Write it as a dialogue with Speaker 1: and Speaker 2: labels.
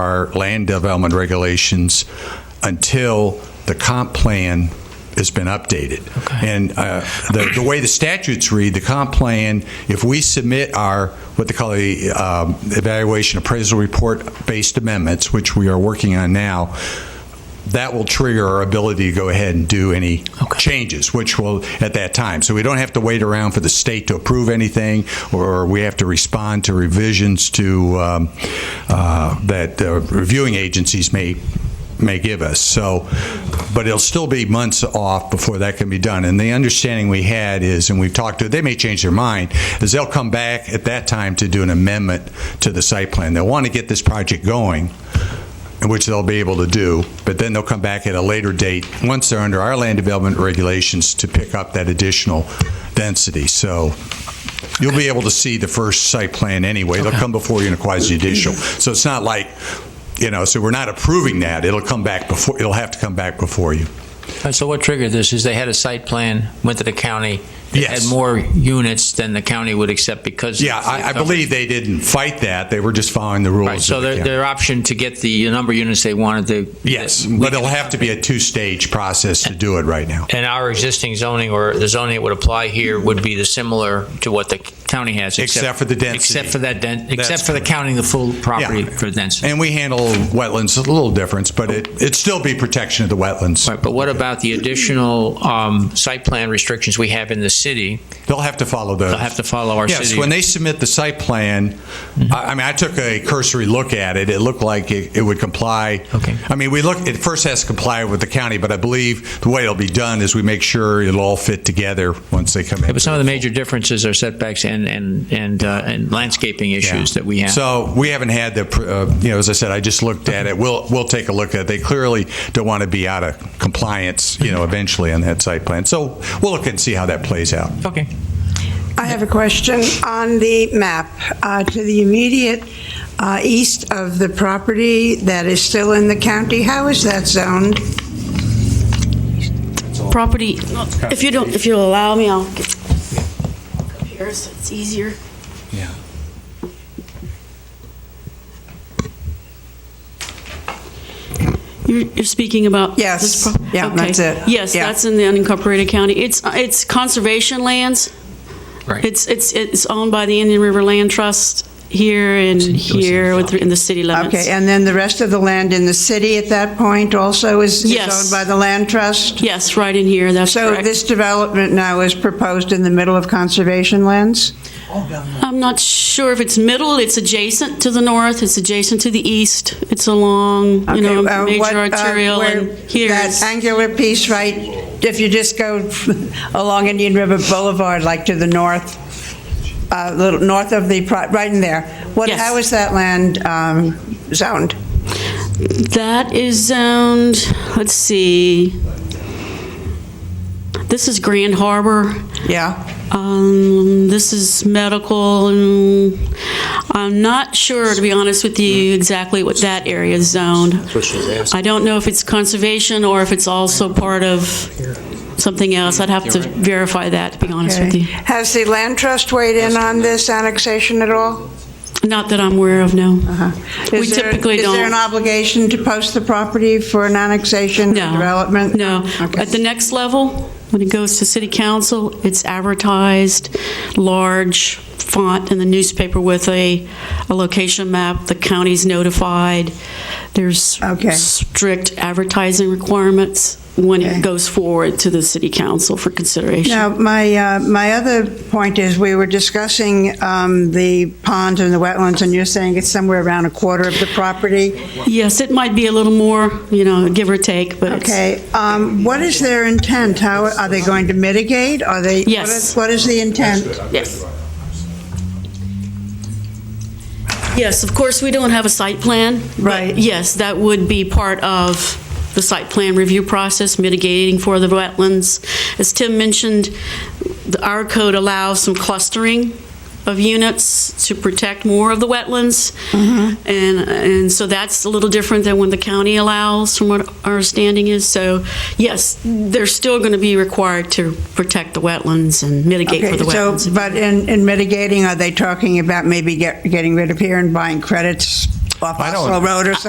Speaker 1: our land development regulations until the comp plan has been updated. And uh, the the way the statutes read, the comp plan, if we submit our, what they call the um, evaluation appraisal report-based amendments, which we are working on now, that will trigger our ability to go ahead and do any changes, which will at that time. So we don't have to wait around for the state to approve anything, or we have to respond to revisions to um, uh, that uh, reviewing agencies may may give us. So, but it'll still be months off before that can be done. And the understanding we had is, and we've talked to, they may change their mind, is they'll come back at that time to do an amendment to the site plan. They'll want to get this project going which they'll be able to do, but then they'll come back at a later date, once they're under our land development regulations, to pick up that additional density. So you'll be able to see the first site plan anyway. They'll come before you in a quasi-judicial. So it's not like, you know, so we're not approving that. It'll come back before, it'll have to come back before you.
Speaker 2: Uh, So what triggered this is they had a site plan, went to the county, it
Speaker 1: Yes.
Speaker 2: had more units than the county would accept because. of
Speaker 1: Yeah, I, I
Speaker 2: the coverage.
Speaker 1: believe they didn't fight that. They were just following the
Speaker 2: Right,
Speaker 1: rules.
Speaker 2: so
Speaker 1: of the
Speaker 2: their,
Speaker 1: county.
Speaker 2: their option to get the number of units they wanted to.
Speaker 1: Yes, but it'll have to be a two-stage process to do it right now.
Speaker 2: And our existing zoning or the zoning that would apply here would be the similar to what the county has.
Speaker 1: Except for the density.
Speaker 2: Except for that, den-
Speaker 1: That's
Speaker 2: except for the counting the full property
Speaker 1: Yeah.
Speaker 2: for density.
Speaker 1: And we handle wetlands a little difference, but it, it'd still be protection of the wetlands.
Speaker 2: Right, but what about the additional um, site plan restrictions we have in the city?
Speaker 1: They'll have to follow those.
Speaker 2: They'll have to follow Mm-hmm. our
Speaker 1: Yes,
Speaker 2: city.
Speaker 1: when they submit the site plan, I I mean, I took a cursory look at it. It looked like it it would comply.
Speaker 2: Okay.
Speaker 1: I mean, we look, it first has to comply with the county, but I believe the way it'll be done is we make sure it'll all fit together once they come in.
Speaker 2: Yeah, But some of the major differences are setbacks and, and, and, uh, and landscaping issues that we have.
Speaker 1: So we haven't had the, pr- uh, you know, as I said, I just looked at it. We'll, we'll take a look at it. They clearly don't want to be out of compliance, you know, eventually on that site plan. So we'll look and see how that plays out.
Speaker 2: Okay.
Speaker 3: I have a question on the map. Uh, To the immediate uh, east of the property that is still in the county, how is that zoned?
Speaker 4: property, if you don't, if you'll allow me, I'll get up here so it's easier.
Speaker 1: Yeah.
Speaker 4: You're, you're speaking about?
Speaker 3: Yes.
Speaker 4: this pro-
Speaker 3: Yeah,
Speaker 4: okay.
Speaker 3: that's it.
Speaker 4: Yes,
Speaker 3: Yeah.
Speaker 4: that's in the unincorporated county. It's, it's conservation lands.
Speaker 2: Right.
Speaker 4: It's, it's, it's owned by the Indian River Land Trust here and here with- in the city limits.
Speaker 3: Okay, and then the rest of the land in the city at that point also is is
Speaker 4: Yes.
Speaker 3: owned by the land trust?
Speaker 4: Yes, right in here, that's
Speaker 3: So
Speaker 4: correct.
Speaker 3: this development now is proposed in the middle of conservation lands?
Speaker 4: I'm not sure if it's middle, it's adjacent to the north, it's adjacent to the east, it's along, you know,
Speaker 3: Okay, uh, what,
Speaker 4: major
Speaker 3: uh,
Speaker 4: arterial
Speaker 3: where
Speaker 4: and here
Speaker 3: That
Speaker 4: is-
Speaker 3: angular piece, right, if you just go along Indian River Boulevard, like to the north, uh, little, north of the, pro- right in there. What,
Speaker 4: Yes.
Speaker 3: how is that land um, zoned?
Speaker 4: That is zoned, let's see. This is Grand Harbor.
Speaker 3: Yeah?
Speaker 4: Um, this is medical. and I'm not sure, to be honest with you, exactly what that area is zoned. I don't know if it's conservation or if it's also part of something else. I'd have to verify that, to be honest with
Speaker 3: Okay.
Speaker 4: you.
Speaker 3: Has the land trust weighed in on this annexation at all?
Speaker 4: Not that I'm aware of, no.
Speaker 3: Uh-huh. Is
Speaker 4: Uh-huh. We
Speaker 3: there-
Speaker 4: typically
Speaker 3: Is there
Speaker 4: don't.
Speaker 3: an obligation to post the property for an annexation or
Speaker 4: No.
Speaker 3: development?
Speaker 4: No.
Speaker 3: Okay.
Speaker 4: At the next level, when it goes to city council, it's advertised, large font in the newspaper with a, a location map. The county's notified. There's
Speaker 3: Okay.
Speaker 4: strict advertising requirements when
Speaker 3: Okay.
Speaker 4: it goes forward to the city council for consideration.
Speaker 3: Now, my, uh, my other point is, we were discussing um, the ponds and the wetlands, and you're saying it's somewhere around a quarter of the property.
Speaker 4: Yes, it might be a little more, you know, give or take, but it's-
Speaker 3: Okay, um, what is their intent? How, are they going to mitigate? Are they? what
Speaker 4: Yes.
Speaker 3: is- What is the intent?
Speaker 4: Yes. Yes, of course, we don't have a site plan. but
Speaker 3: Right.
Speaker 4: Yes, that would be part of the site plan review process, mitigating for the wetlands. As Tim mentioned, the- our code allows some clustering of units to protect more of the wetlands.
Speaker 3: Mm-hmm.
Speaker 4: And, and so that's a little different than when the county allows, from what our standing is. So, yes, they're still going to be required to protect the wetlands and mitigate for
Speaker 3: Okay,
Speaker 4: the
Speaker 3: so,
Speaker 4: wetlands.
Speaker 3: but in, in mitigating, are they talking about maybe get, getting rid of here and buying credits off
Speaker 1: I don't-
Speaker 3: Oslo Road or